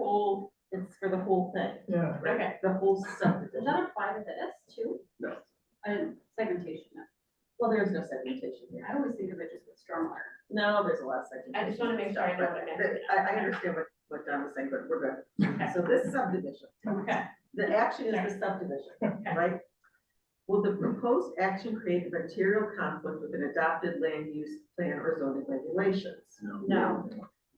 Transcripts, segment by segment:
whole, it's for the whole thing, Yeah. Okay, the whole does subdivision. that apply to this too? No. Uh, segmentation, no. Well, there is no segmentation here. I always think of it just with stormwater. No, there's a lot of segmentation. I just wanna make sure I know stuff, what but I'm asking. the- I, I understand what, what Don was saying, but we're good. Okay. So this subdivision, Okay. the action is the subdivision, Okay. right? Will the proposed action create a material conflict with an adopted land use plan or zoning regulations? No.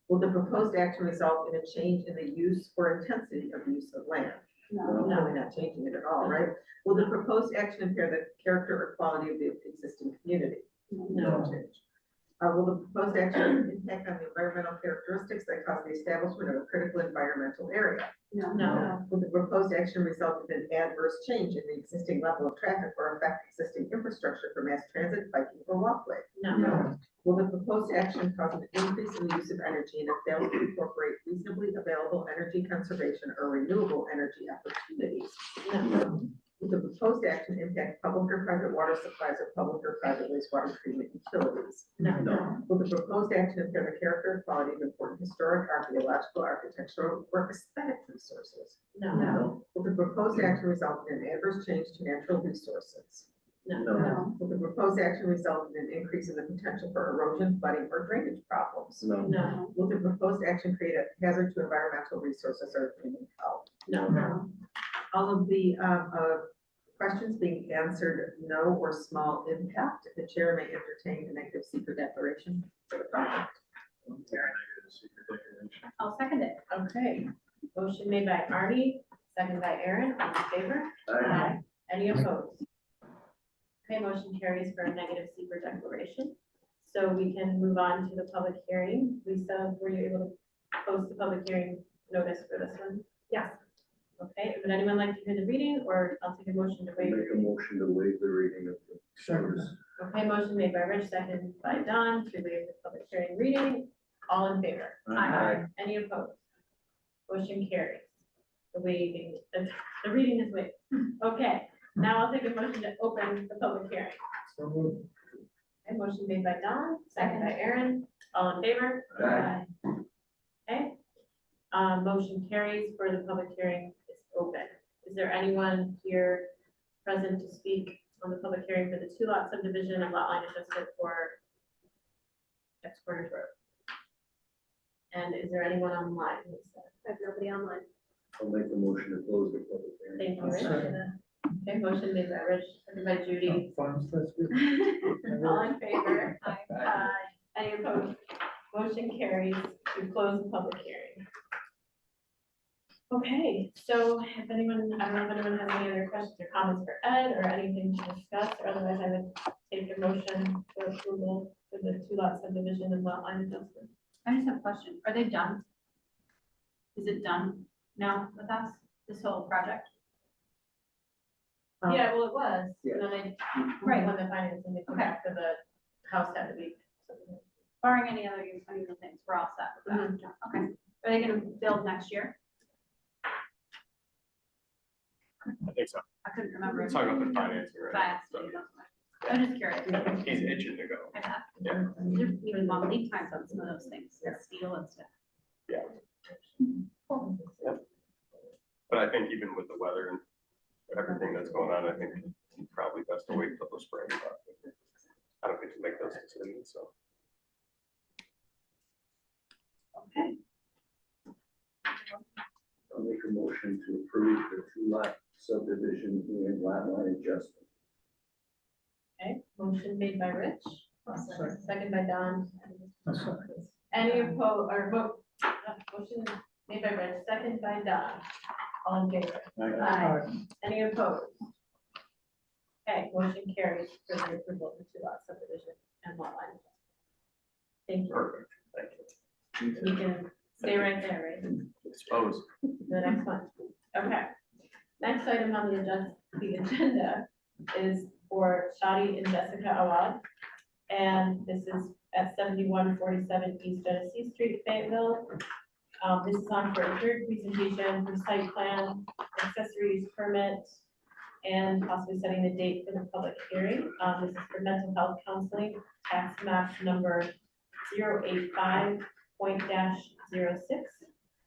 Will the proposed action result in a change in the use or intensity of use of land? No. No, we're not changing it at all, right? Will the proposed action impair the character or quality of the existing community? No change. Uh, will the proposed action impact on the environmental characteristics that cause the establishment of a critical environmental area? No. No. Will the proposed action result in an adverse change in the existing level of traffic or affect existing infrastructure for mass transit, biking, or walkway? No. Will the proposed action cause an increase in the use of energy and if fails to incorporate reasonably available energy conservation or renewable energy opportunities? Will the proposed action impact public or private water supplies or public or private wastewater treatment utilities? No. Will the proposed action impair the character and quality of important historic, archaeological, architectural, or aesthetic resources? No. Will the proposed action result in an adverse change to natural resources? No. Will the proposed action result in an increase in the potential for erosion, flooding, or drainage problems? No. No. Will the proposed action create a hazard to environmental resources or human health? No. All of the, um, uh, questions being answered, no or small impact, the chair may entertain a negative secret declaration for the project. I'll second it. Okay, motion made by Arnie, second by Aaron, all in favor? Any opposed? Okay, motion carries for a negative secret declaration. So we can move on to the public hearing. Lisa, were you able to post the public hearing notice for this one? Yes. Okay, would anyone like to hear the reading or I'll take a motion to Make waive the a reading? motion to waive the reading of the. Okay, motion made by Rich, second by Don to waive the public hearing reading. All in favor? Aye. Any opposed? Motion carries. The waiving, the the reading is waived. Okay, now I'll take a motion to open the public hearing. So moved. A motion made by Don, second by Aaron. All in favor? Aye. Okay. Uh, motion carries for the public hearing is open. Is there anyone here present to speak on the public hearing for the two lot subdivision and lot line adjustment for X Corners Road? And is there anyone online? Lisa? I have nobody online. I'll make a motion to close the public hearing. Thank you, Rich. Okay, motion made by Rich, seconded by Judy. Farms last week. All in favor? Aye. Aye. Any opposed? Motion carries to close the public hearing. Okay, so if anyone, I don't know if anyone has any other questions or comments for Ed or anything to discuss, or otherwise I would take a motion for approval for the two lot subdivision and lot line adjustment. I just have a question. Are they done? Is it done now with us, this whole project? Um, Yeah, well, it was, and then they, Right. when the financing, they come back for the house had to be. Barring any other unusual things, we're all set with that. Okay. Are they gonna build next year? I think so. I couldn't remember. Talk about the financing, right? Finance, maybe that's why. I'm just curious. So, He's itching to go. I have- Yeah. There's even long lead times on some of those things, like steel and stuff. But I think even with the weather and everything that's going on, I think it's probably best to wait till the spring. but I don't get to make those decisions, so. Okay, I'll make a motion to approve the two lot subdivision and lot line adjustment. okay, motion made by Rich, Sorry. second by Don. I'm sorry. Any opposed, or vote, uh, motion made by Rich, second by Don, all in favor? Aye. Any opposed? Okay, motion carries for the approval of the two lot subdivision and lot line. Thank you, Perfect, thank you. you can stay right there, right? Suppose. the next one. Okay. Next item on the agenda, the agenda is for Shadi and Jessica Awad. And this is at seventy-one forty-seven East Genesee Street, Fayetteville. Um, this is on for a third presentation for site plan, accessories permit, and possibly setting the date for the public hearing. Um, this is for mental health counseling, tax map number 085.06.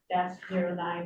dash zero nine